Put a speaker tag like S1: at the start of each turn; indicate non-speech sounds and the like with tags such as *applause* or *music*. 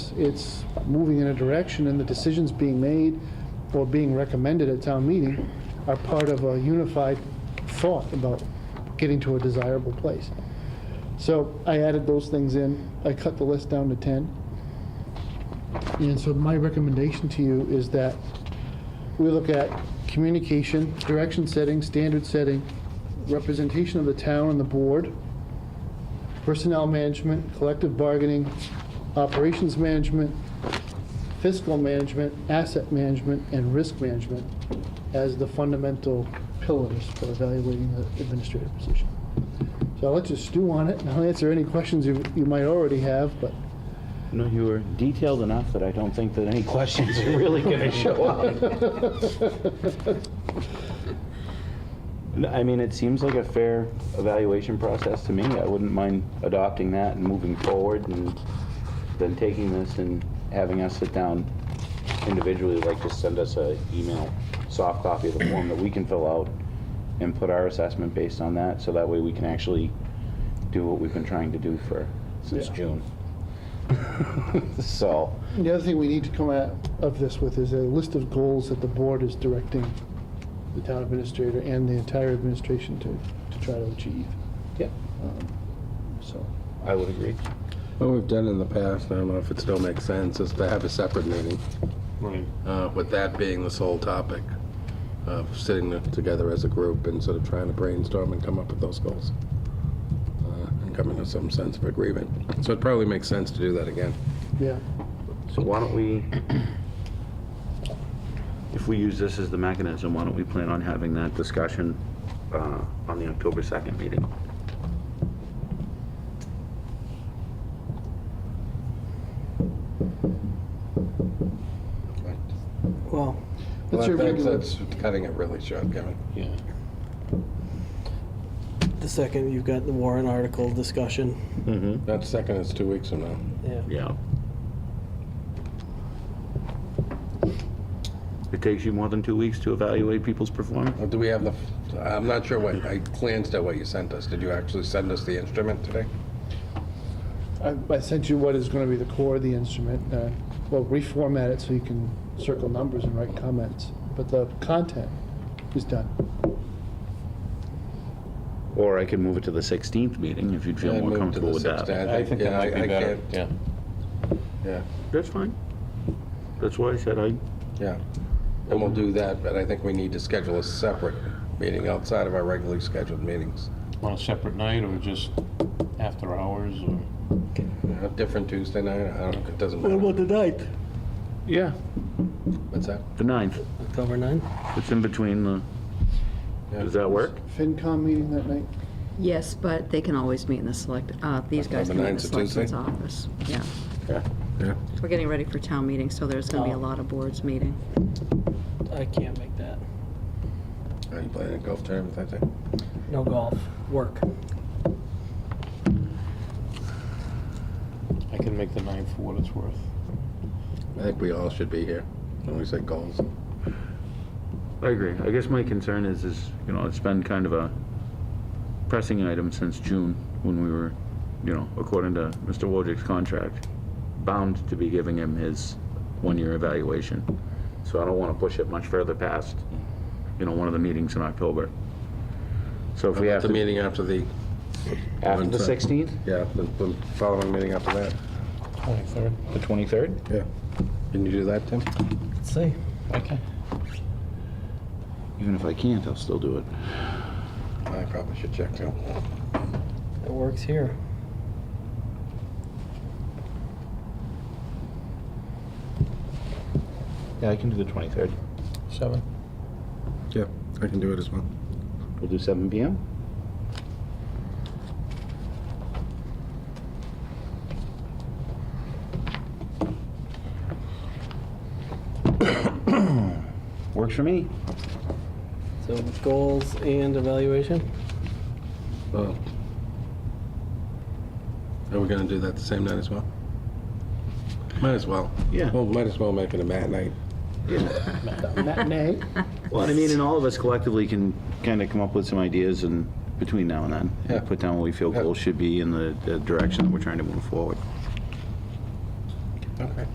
S1: it's, it's moving in a direction, and the decisions being made or being recommended at town meeting are part of a unified thought about getting to a desirable place. So I added those things in. I cut the list down to 10. And so my recommendation to you is that we look at communication, direction setting, standard setting, representation of the town and the board, personnel management, collective bargaining, operations management, fiscal management, asset management, and risk management as the fundamental pillars for evaluating the administrative position. So I'll let you stew on it, and I'll answer any questions you, you might already have, but
S2: No, you were detailed enough that I don't think that any questions are really going to show up. No, I mean, it seems like a fair evaluation process to me. I wouldn't mind adopting that and moving forward and then taking this and having us sit down individually, like just send us a email, soft copy of the form that we can fill out and put our assessment based on that, so that way we can actually do what we've been trying to do for, since
S1: Yeah.
S2: June. *laughs* So,
S1: The other thing we need to come out of this with is a list of goals that the board is directing the town administrator and the entire administration to, to try to achieve.
S2: yeah,
S1: So,
S2: I would agree.
S3: What we've done in the past, I don't know if it still makes sense, is to have a separate meeting,
S2: Right.
S3: uh, with that being the sole topic of sitting there together as a group and sort of trying to brainstorm and come up with those goals. uh, And coming to some sense of agreement. So it probably makes sense to do that again.
S1: yeah,
S2: So why don't we, if we use this as the mechanism, why don't we plan on having that discussion uh, on the October 2nd meeting?
S4: Well,
S1: That's your
S3: Well, I think
S1: regular-
S3: That's cutting it really short, Kevin.
S2: Yeah.
S4: the second you've got the warrant article discussion,
S2: Mm-hmm.
S3: That second is two weeks from now.
S4: yeah.
S2: Yeah. It takes you more than two weeks to evaluate people's performance?
S3: Uh, Do we have the, f- I'm not sure what, I glanced at what you sent us. Did you actually send us the instrument today?
S1: I, I sent you what is gonna be the core of the instrument, uh, well, reformat it so you can circle numbers and write comments, but the content is done.
S2: Or I could move it to the 16th meeting if you'd feel
S3: I
S2: more
S3: moved to
S2: comfortable
S3: the
S2: with
S3: 16th.
S2: that.
S5: I think
S3: yeah,
S5: that might
S3: I
S5: be better,
S3: can't-
S5: yeah.
S3: Yeah,
S2: That's fine. That's why I said I,
S3: yeah. And we'll do that, but I think we need to schedule a separate meeting outside of our regularly scheduled meetings.
S5: On a separate night or just after hours or?
S3: A different Tuesday night, I don't, it doesn't
S4: What
S3: matter.
S4: about the ninth?
S2: yeah,
S3: What's that?
S2: the 9th.
S4: October ninth?
S2: It's in between the,
S3: Yeah.
S2: does that work?
S1: FinCom meeting that night?
S6: Yes, but they can always meet in the select, uh, these guys
S3: Number
S6: can meet in the
S3: nine's a Tuesday?
S6: selectmen's office. Yeah.
S2: Yeah.
S3: Yeah.
S6: We're getting ready for town meeting, so there's going to be a
S4: Oh.
S6: lot of boards meeting.
S4: I can't make that.
S3: Are you playing a golf tournament that day?
S4: No golf, work.
S5: I can make the nine for what it's worth.
S3: I think we all should be here when we say goals.
S2: I agree. I guess my concern is, is, you know, it's been kind of a pressing item since June, when we were, you know, according to Mr. Wojcik's contract, bound to be giving him his one-year evaluation. So I don't want to push it much further past, you know, one of the meetings in October. So if we have
S3: The
S2: to,
S3: meeting after the,
S2: after the
S3: One sec.
S2: 16th?
S3: yeah, the, the following meeting after that.
S5: Twenty-third?
S2: The 23rd?
S3: Yeah. Can you do that, Tim?
S4: Let's see.
S5: Okay.
S2: Even if I can't, I'll still do it.
S3: I probably should check too.
S4: It works here.
S2: Yeah, I can do the 23rd.
S5: Seven?
S3: Yeah, I can do it as well.
S2: We'll do 7 PM? *coughs* Works for me.
S4: So goals and evaluation?
S3: Well, Are we gonna do that the same night as well? Might as well.
S2: Yeah.
S3: Well, might as well make it a mat night.
S1: Matinee?
S2: Well, I mean, and all of us collectively can kind of come up with some ideas and between now and then.
S3: Yeah.
S2: Put down what we feel
S3: Yeah.
S2: goals should be and the the direction that we're trying to move forward.